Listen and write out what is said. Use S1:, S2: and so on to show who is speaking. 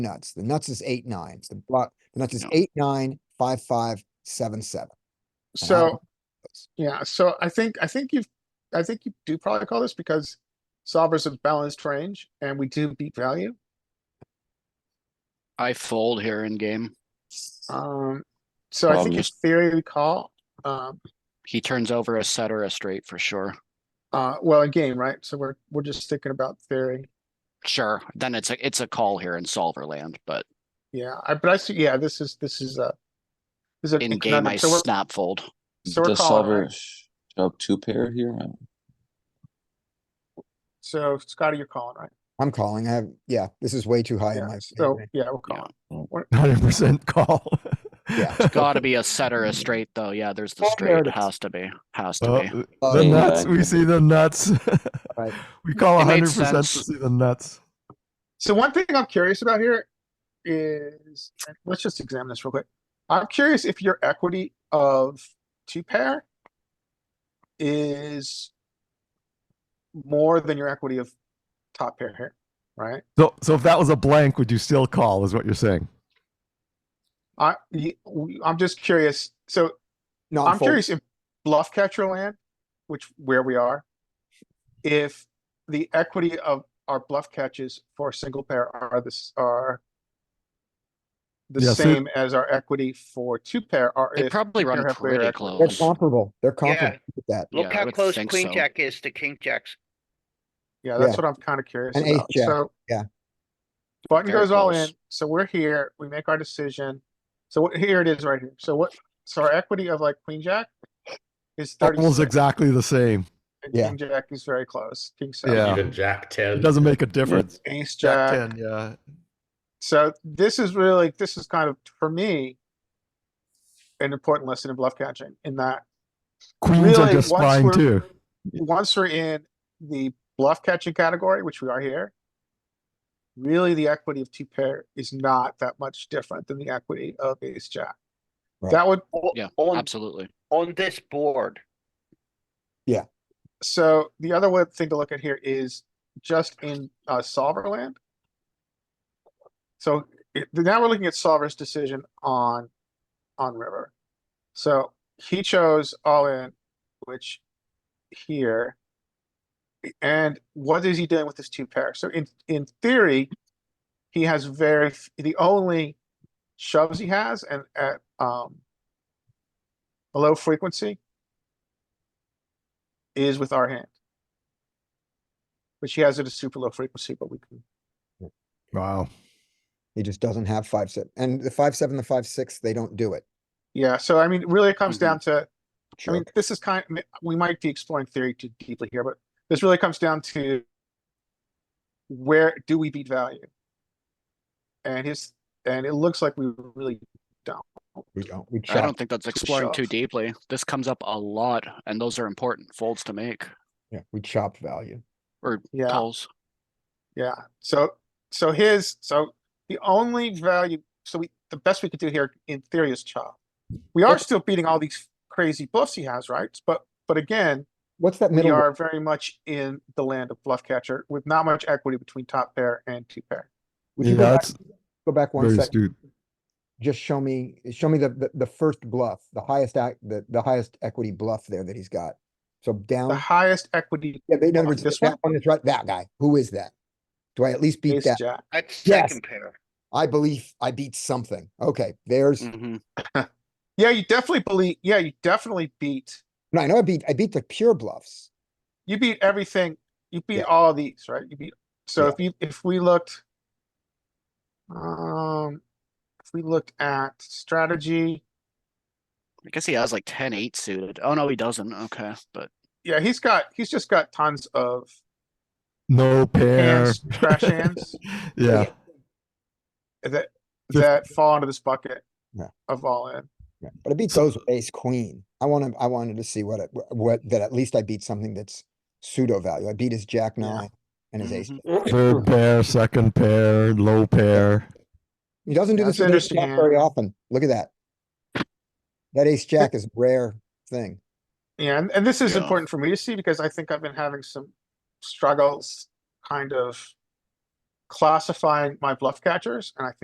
S1: nuts. The nuts is eight nines. The block, the nuts is
S2: No.
S1: eight, nine, five, five, seven, seven. And I don't-
S3: So, yeah, so I think, I think you've, I think you do probably call this because solvers have balanced range and we do beat value.
S2: I fold here in game.
S3: Um, so I think
S4: Problem
S3: in
S4: is-
S3: theory we call, um,
S2: He turns over a set or a straight for sure.
S3: uh, well, a game, right? So we're, we're just thinking about theory.
S2: Sure, then it's a, it's a call here in solver land, but
S3: Yeah, I, but I see, yeah, this is, this is a. This is an
S2: in game I
S3: economic, so we're,
S2: snap fold.
S3: so we're calling,
S4: Does solver
S3: right?
S4: shove two pair here? I don't-
S3: So Scotty, you're calling, right?
S1: I'm calling. I have, yeah, this is way too high in
S3: Yeah,
S1: my.
S3: so,
S1: opinion.
S3: yeah, we're
S2: Yeah.
S3: calling.
S5: Hundred percent call.
S1: Yeah.
S2: Gotta be a set or a straight though, yeah, there's the
S1: Oh, there
S2: straight,
S1: it is.
S2: has to be, has to
S5: Oh,
S2: be.
S1: Oh,
S5: the
S1: yeah.
S5: nuts. We see the nuts.
S1: Right.
S5: we call
S2: It made
S5: hundred percent to
S2: sense.
S5: see the nuts.
S3: So one thing I'm curious about here is, let's just examine this real quick. I'm curious if your equity of two pair is more than your equity of top pair here, right?
S5: So, so if that was a blank, would you still call? Is what you're saying?
S3: I, y- w- I'm just curious. So
S1: No,
S3: I'm
S1: I'm folding.
S3: curious if bluff catcher land, which where we are, if the equity of our bluff catches for a single pair are this are the
S5: Yeah, so-
S3: same as our equity for two pair are
S2: They probably run pretty
S1: They're
S2: close.
S1: comparable. They're comparable with that.
S2: Yeah,
S6: Look
S2: I
S6: how
S2: would
S6: close
S2: think
S6: queen
S2: so.
S6: jack is to king jacks.
S3: Yeah, that's
S1: Yeah.
S3: what I'm kind of curious
S1: And ace
S3: about.
S1: jack,
S3: So.
S1: yeah.
S3: Button
S2: Very
S3: goes all in,
S2: close.
S3: so we're here, we make our decision. So what, here it is right here. So what, so our equity of like queen jack is
S5: Almost
S3: thirty-six.
S5: exactly the same.
S3: and
S1: Yeah.
S3: King jack is very close, king
S5: Yeah.
S3: seven,
S7: Even Jack ten.
S5: It doesn't make a difference.
S3: ace
S5: Jack
S3: jack.
S5: ten. Yeah.
S3: So this is really, this is kind of, for me, an important lesson in bluff catching in that
S5: Queens are
S3: Really,
S5: just
S3: once
S5: fine
S3: we're-
S5: too.
S3: once we're in the bluff catching category, which we are here, really the equity of two pair is not that much different than the equity of ace jack.
S1: Right.
S3: That would,
S6: O-
S2: Yeah,
S6: On,
S2: Absolutely.
S6: on this board,
S3: so the other one thing to look at here is just in uh, solver land. So it- now we're looking at solver's decision on, on river. So he chose all in, which here. And what is he doing with his two pair? So in, in theory, he has very, f- the only shoves he has and at, um, a low frequency is with our hand. Which he has at a super low frequency, but we can,
S5: Wow.
S1: He just doesn't have five, seven. And the five, seven, the five, six, they don't do it.
S3: yeah, so I mean, really it comes
S2: Mhm.
S3: down to, I mean,
S1: Jerk.
S3: this is kind, I mean, we might be exploring theory too deeply here, but this really comes down to. Where do we beat value? And his, and it looks like we really don't.
S1: We don't, we
S2: I
S1: chop.
S2: don't think that's exploring too
S3: shove.
S2: deeply. This comes up a lot and those are important folds to make,
S1: Yeah, we chop value.
S2: or
S3: Yeah.
S2: calls.
S3: Yeah, so, so his, so the only value, so we, the best we could do here in theory is chop. We are
S1: Yep.
S3: still beating all these crazy bluffs he has, right? But, but again,
S1: What's that
S3: we
S1: middle?
S3: are very much in the land of bluff catcher with not much equity between top pair and two pair.
S1: Would
S5: yeah,
S1: you go back,
S5: that's
S1: go back one
S5: very
S1: second?
S5: astute.
S1: Just show me, show me the, the, the first bluff, the highest act, the, the highest equity bluff there that he's got. So
S3: The
S1: down.
S3: highest equity
S1: Yeah, but in other
S3: Off
S1: words,
S3: this
S1: that
S3: one?
S1: one is right, that guy, who is that? Do I at least beat
S3: ace
S1: that?
S3: jack.
S6: that's
S1: Yes.
S6: second pair.
S1: I believe I beat something. Okay, there's,
S3: Mm.
S2: hmm
S3: Yeah, you definitely believe, yeah, you definitely beat,
S1: no, I know I beat, I beat the pure bluffs.
S3: you beat everything, you beat
S1: Yeah.
S3: all these, right? You beat, so
S1: Yeah.
S3: if you, if we looked. Um, if we looked at strategy,
S2: I guess he has like ten eight suited. Oh, no, he doesn't. Okay, but
S3: yeah, he's got, he's just got tons of,
S5: No pair.
S3: Hands, trash hands.
S5: yeah.
S3: that,
S5: Just-
S3: that fall into this bucket.
S1: Yeah.
S3: Of all in,
S1: Yeah, But I beat those with ace queen. I wanna, I wanted to see what, it- wh- what, that at least I beat something that's pseudo value. I beat his jack
S3: Yeah. Mm-hmm.
S1: nine and his ace.
S2: Mhm.
S5: Third pair, second pair, low pair.
S1: He doesn't do
S3: That's
S1: this with ace
S3: interesting,
S1: jack
S3: yeah.
S1: very often. Look at that. That ace jack is a rare thing.
S3: Yeah, and, and this is
S2: Yeah.
S3: important for me to see because I think I've been having some struggles kind of classifying my bluff catchers, and I think